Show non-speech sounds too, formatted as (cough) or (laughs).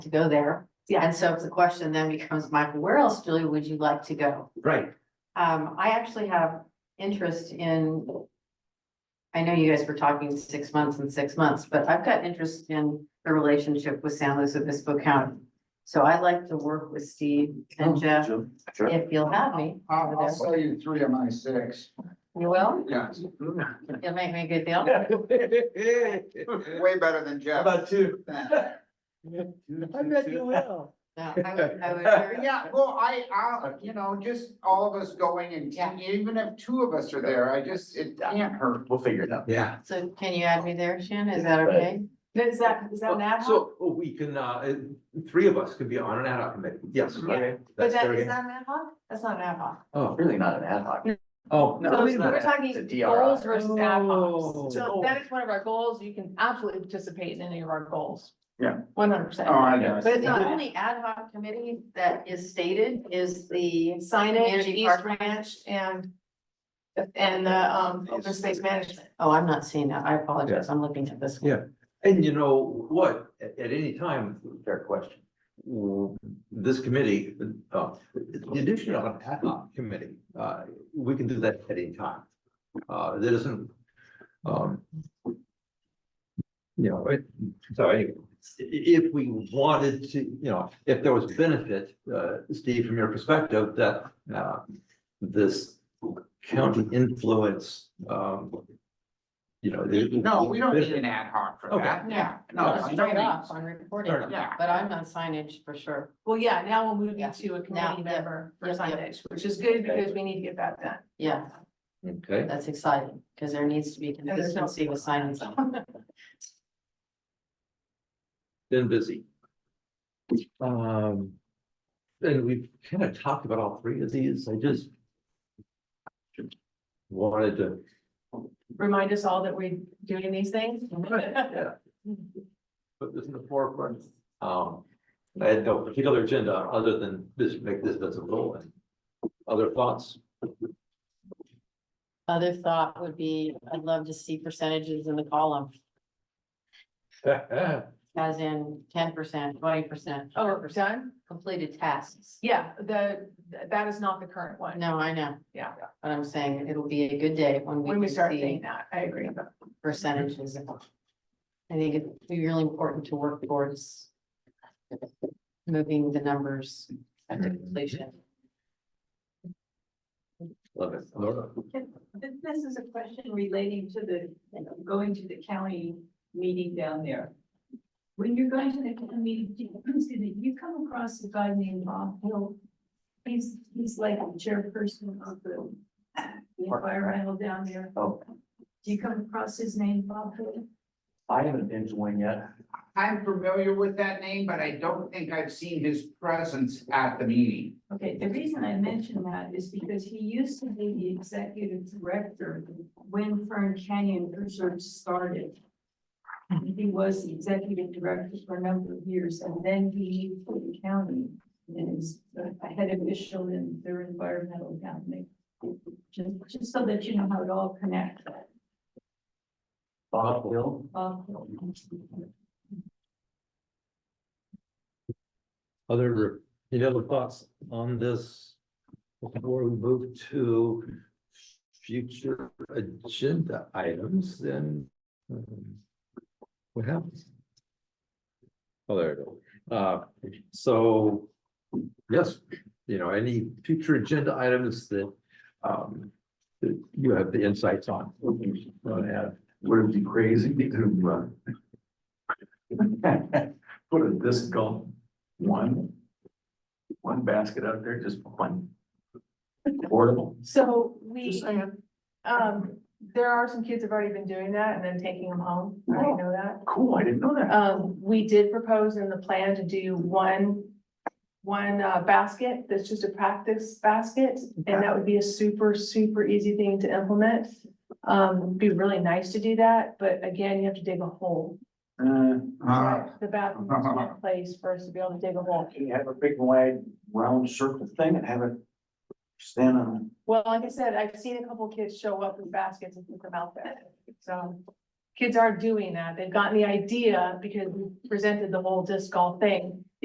to go there. Yeah. And so the question then becomes, Michael, where else, Julie, would you like to go? Right, Um, I actually have interest in. I know you guys were talking six months and six months, but I've got interest in the relationship with San Luis Obispo County. So I'd like to work with Steve and Oh, uh, Jeff, Jim, sure. if you'll have me. I'll, over I'll there. sell you three of my six, You will? yes, You'll make me a good deal? (laughs) (laughs) way better than Jeff. About two. I bet you will. No, I would, I would (laughs) very- Yeah, well, I, I, you know, just all of us going and Yeah. even if two of us are there, I just, it can't hurt. We'll figure it out. Yeah. So can you add me there, Shannon? Is that okay? Is that, is that an ad hoc? So oh, we can, uh, uh, three of us could be on an ad hoc committee, yes. Yeah. okay, But that's that, very- is that an ad hoc? That's not an ad hoc. Oh, Really not an ad hoc. oh. No, So it's not We're a- it's a talking DRI. goals versus ad Oh. hocs. So that is one of our goals. You can absolutely participate in any of our goals. Yeah. One hundred percent. Oh, I know. But it's The not only ad hoc committee that is stated is the, signage, Community East Park Ranch and and the um open space management. oh, I'm not seeing that. I apologize. I'm looking at this one. Yeah. And you know what, at, at any time, fair question. w- This committee, uh, the addition of an ad hoc committee, uh, we can do that at any time. Uh, that isn't, um. You know, it, so anyway, i- if we wanted to, you know, if there was benefit, uh, Steve, from your perspective, that, uh, this county influence, um. You know. the- No, we don't need an ad hoc for Okay. that, yeah, no, No, by Straight no off on reporting, Fair enough. means, yeah. but I'm on signage for sure. Well, yeah, now we'll move Yeah. you to a Now, committee yeah. member for Yep, yep. signage, which is good because we need to get that done. Yeah, Okay. that's exciting because there needs to be there's no- consistency with signings. been busy. Um, and we've kind of talked about all three of these, I just. Wanted to, (laughs) Remind us all that we're doing these (laughs) things. Oh, yeah. Put this in the forefront, um, I had no particular agenda other than this, make this visible and other thoughts. (laughs) Other thought would be, I'd love to see percentages in the column, as in ten percent, twenty percent. Oh, we're done? Completed tasks. Yeah, the, that is not the current one. No, I know. Yeah. But I'm saying it'll be a good day when we. When we can start see- doing that, I agree. percentages. I think it'd be really important to work towards moving the numbers at the completion. Love it, Laura, This, this is a question relating to the, going to the county meeting down there. When you're going to the county meeting, do you- excuse me, do you come across a guy named Bob Hill. He's, he's like the chairperson of the the fire isle down there. Oh. Do you come across his name, Bob Hill? I haven't been to one yet. I'm familiar with that name, but I don't think I've seen his presence at the meeting. Okay, the reason I mention that is because he used to be the executive director when Fern Canyon Research started. He was the executive director for a number of years and then he moved to the county and is a head official in their environmental county. Just, just so that you know how it all connects. Bob Hill. Um, other, any other thoughts on this? Before we move to future agenda items, then. um, What happens? Oh, there it is. Uh, so, yes, you know, any future agenda items that, um, that you have the insights on. Want to add? Would it be crazy to, uh, (laughs) put a disc golf, one, one basket out there, just one? Portable. So we, Just saying, um, there are some kids have already been doing that and then taking them home. Oh. I already know that. cool, I didn't know that. Um, we did propose in the plan to do one, one uh, basket that's just a practice basket. And that would be a super, super easy thing to implement. Um, it'd be really nice to do that, but again, you have to dig a hole. Uh, The bathroom is not a place for us to be able to dig a hole. You have a big wide round circle thing and have it stand on Well, like I said, I've seen a couple kids show up with baskets and put them out there, so. Kids are doing that, they've gotten the idea because we presented the whole disc golf thing,